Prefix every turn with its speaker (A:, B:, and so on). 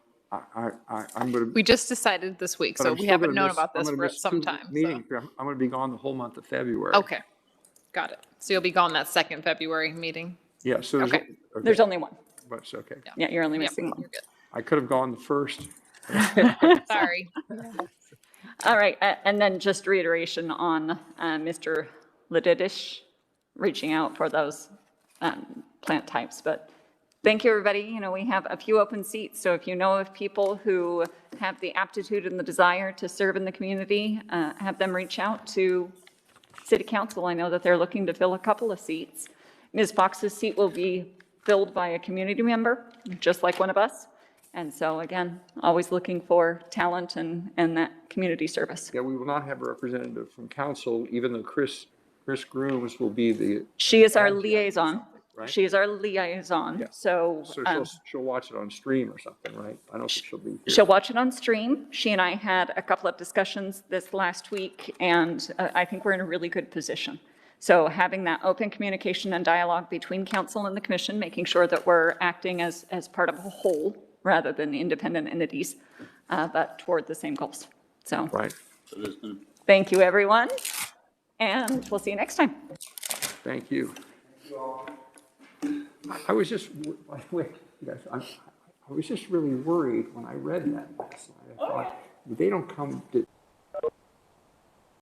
A: I, I, I- I'm going to.
B: We just decided this week, so we haven't known about this for some time. so-
A: Meeting, I'm going to be gone the whole month of February.
B: Okay, got it. So you'll be gone that second February meeting?
A: Yeah, so there's,
B: Okay.
A: okay,
C: There's only one.
A: but it's okay.
C: Yeah, you're only
B: Yeah,
C: missing one.
B: you're good.
A: I could have gone the first.
B: Sorry.
C: All right, a- and then just reiteration on uh, Mr. Lididish reaching out for those um, plant types, but thank you, everybody. You know, we have a few open seats, so if you know of people who have the aptitude and the desire to serve in the community, uh, have them reach out to city council. I know that they're looking to fill a couple of seats. Ms. Fox's seat will be filled by a community member, just like one of us. And so again, always looking for talent and, and that community service.
A: Yeah, we will not have a representative from council, even though Chris, Chris Grooms will be the,
C: She is our liaison.
A: uh, right?
C: She is our liaison.
A: Yeah.
B: Uh,
C: So
A: so
C: um,
A: she'll, she'll watch it on stream or something, right? I don't think she'll be here.
C: she'll watch it on stream. She and I had a couple of discussions this last week, and uh, I think we're in a really good position. So having that open communication and dialogue between council and the commission, making sure that we're acting as, as part of a whole rather than independent entities, uh, but toward the same goals. So
A: Right,
C: thank you, everyone, and we'll see you next time.
A: thank you. I- I was just, w- by the way, yes,
B: Oh,
A: I'm- I was just really worried when I read that last night. I thought, they don't come to